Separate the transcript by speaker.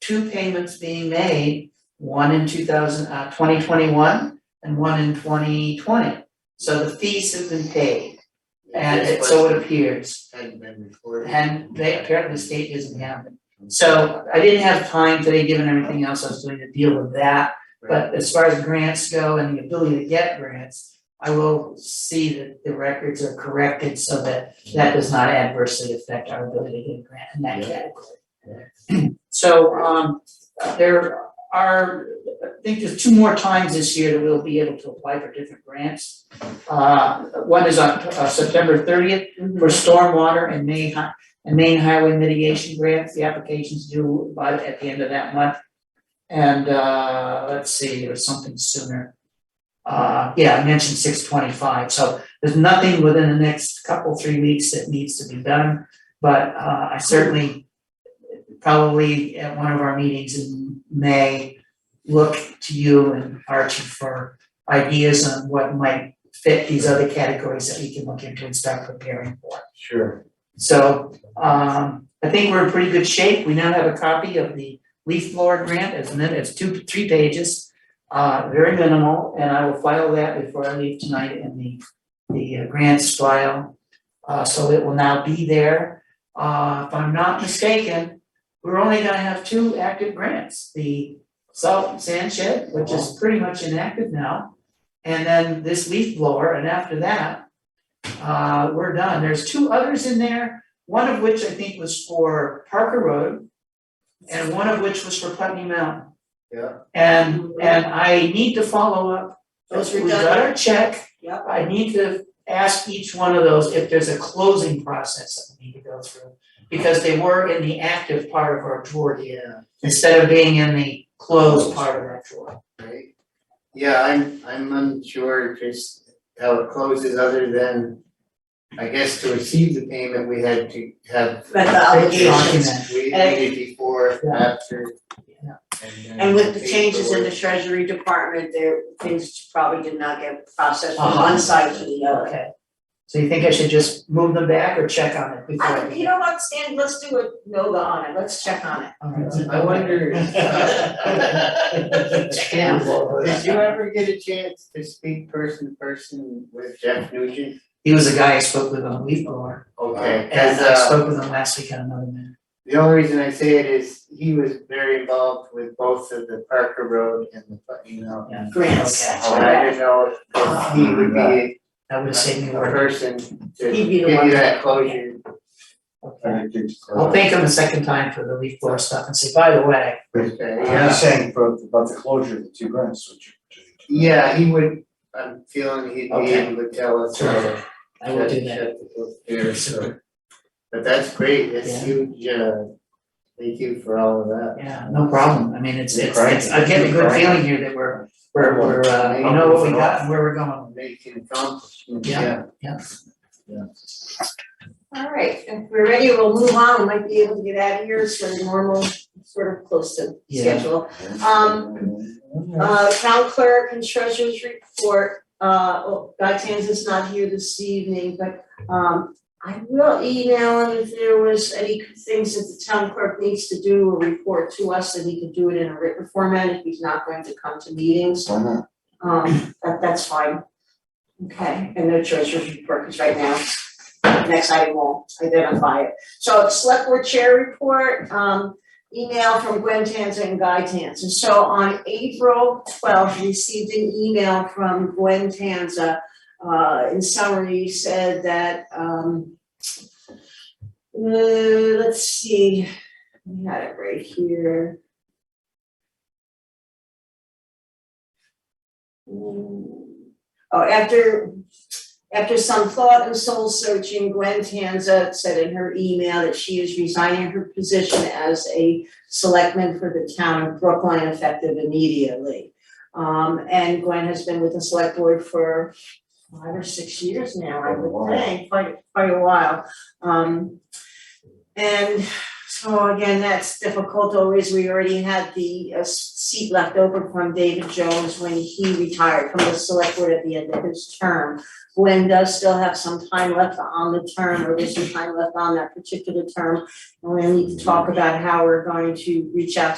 Speaker 1: two payments being made, one in two thousand, uh, twenty twenty-one and one in twenty twenty. So the fees have been paid, and it, so it appears,
Speaker 2: Hadn't been recorded.
Speaker 1: and they, apparently the state doesn't have it. So I didn't have time today, given everything else I was doing to deal with that, but as far as grants go and the ability to get grants, I will see that the records are corrected so that that does not adversely affect our ability to get a grant in that
Speaker 2: Yeah.
Speaker 1: category. So, um, there are, I think there's two more times this year that we'll be able to apply for different grants. Uh, one is on uh, September thirtieth for stormwater and Maine Hi- and Maine Highway Mitigation Grants, the application's due by, at the end of that month. And, uh, let's see, there was something sooner. Uh, yeah, I mentioned six twenty-five, so there's nothing within the next couple, three weeks that needs to be done. But, uh, I certainly, probably at one of our meetings in May, look to you and Archie for ideas on what might fit these other categories that we can look into and start preparing for.
Speaker 2: Sure.
Speaker 1: So um I think we're in pretty good shape. We now have a copy of the leaf blower grant, as min, it's two, three pages. Uh very minimal, and I will file that before I leave tonight in the the uh, grants file. Uh so it will now be there. Uh if I'm not mistaken, we're only gonna have two active grants, the salt and sand shed, which is pretty much inactive now. And then this leaf blower, and after that, uh, we're done. There's two others in there, one of which I think was for Parker Road. And one of which was for Putney Mountain.
Speaker 2: Yeah.
Speaker 1: And, and I need to follow up.
Speaker 3: Those were
Speaker 1: We got
Speaker 3: done.
Speaker 1: our check.
Speaker 3: Yep.
Speaker 1: I need to ask each one of those if there's a closing process that we need to go through. Because they were in the active part of our drawer here,
Speaker 2: Yeah,
Speaker 1: instead of being in the closed part of our drawer.
Speaker 2: right. Yeah, I'm, I'm unsure just how it closes, other than, I guess to receive the payment, we had to have.
Speaker 3: But the obligations,
Speaker 1: Document.
Speaker 2: We
Speaker 3: And-
Speaker 2: needed before,
Speaker 1: Yeah.
Speaker 2: after.
Speaker 1: Yeah.
Speaker 2: then
Speaker 3: and with the changes in the
Speaker 2: paperwork.
Speaker 3: treasury department, there, things probably did not get processed from
Speaker 1: Uh-huh.
Speaker 3: one side to the other.
Speaker 1: Okay. So you think I should just move them back or check on it before?
Speaker 3: I, you know what, Stan, let's do a NOGA on it, let's check on it.
Speaker 1: All right.
Speaker 2: I wonder.
Speaker 3: Yeah.
Speaker 2: Did you ever get a chance to speak person to person with Jeff Nugent?
Speaker 1: He was the guy I spoke with on leaf blower,
Speaker 2: Okay,
Speaker 1: and
Speaker 2: as
Speaker 1: I
Speaker 2: uh,
Speaker 1: spoke with him last week on another matter.
Speaker 2: the only reason I say it is he was very involved with both of the Parker Road and the Putney Mountain.
Speaker 1: Yeah.
Speaker 3: Grants,
Speaker 1: Okay.
Speaker 2: And I didn't know if- if he would be
Speaker 1: That would have saved me
Speaker 2: a
Speaker 1: work.
Speaker 2: person to
Speaker 3: He'd
Speaker 2: give
Speaker 3: be the
Speaker 2: you
Speaker 3: one.
Speaker 2: that closure.
Speaker 1: Okay. I'll thank him a second time for the leaf blower stuff and say, by the way,
Speaker 2: Okay,
Speaker 4: I'm
Speaker 2: Yeah,
Speaker 4: saying for, about the closure of the two grants, which.
Speaker 2: yeah, he would, I'm feeling he'd be
Speaker 1: Okay.
Speaker 2: able to tell us. uh,
Speaker 1: I will do that.
Speaker 2: Shut the book there, so. But that's great, that's huge, uh, thank you for all of that.
Speaker 1: Yeah, no problem. I mean, it's it's
Speaker 4: Right.
Speaker 1: it's, I get a good feeling here that we're we're we're uh, you know what we got and where we're going.
Speaker 2: Making accomplishments,
Speaker 1: Yeah.
Speaker 2: yeah.
Speaker 3: all right, if we're ready, we'll move on, we might be able to get out of here, sort of normal, sort of close to
Speaker 1: Yeah.
Speaker 3: schedule. Um, Uh, town clerk and treasurer's report, uh, oh, Guy Tanzan's not here this evening, but, um, I will email him if there was any things that the town clerk needs to do or report to us, and he could do it in a written format if he's not going to come to meetings, um, that, that's fine. Okay, and no treasurer's report, because right now, next item won't identify it. So select board chair report, um, email from Gwen Tanza and Guy Tanza. So on April twelfth, received an email from Gwen Tanza. Uh, in summary, said that, um, uh, let's see, we had it right here. Mm, Oh, after, after some thought and soul searching, Gwen Tanza said in her email that she is resigning her position as a selectman for the town of Brookline effective immediately. Um, and Gwen has been with the select board for five or six years now, I
Speaker 4: Wow.
Speaker 3: would think, quite, quite a while. Um, and so again, that's difficult always, we already had the uh, s- seat left open from David Jones when he retired from the select board at the end of his term. Gwen does still have some time left on the term, or there's some time left on that particular term, and we need to talk about how we're going to reach out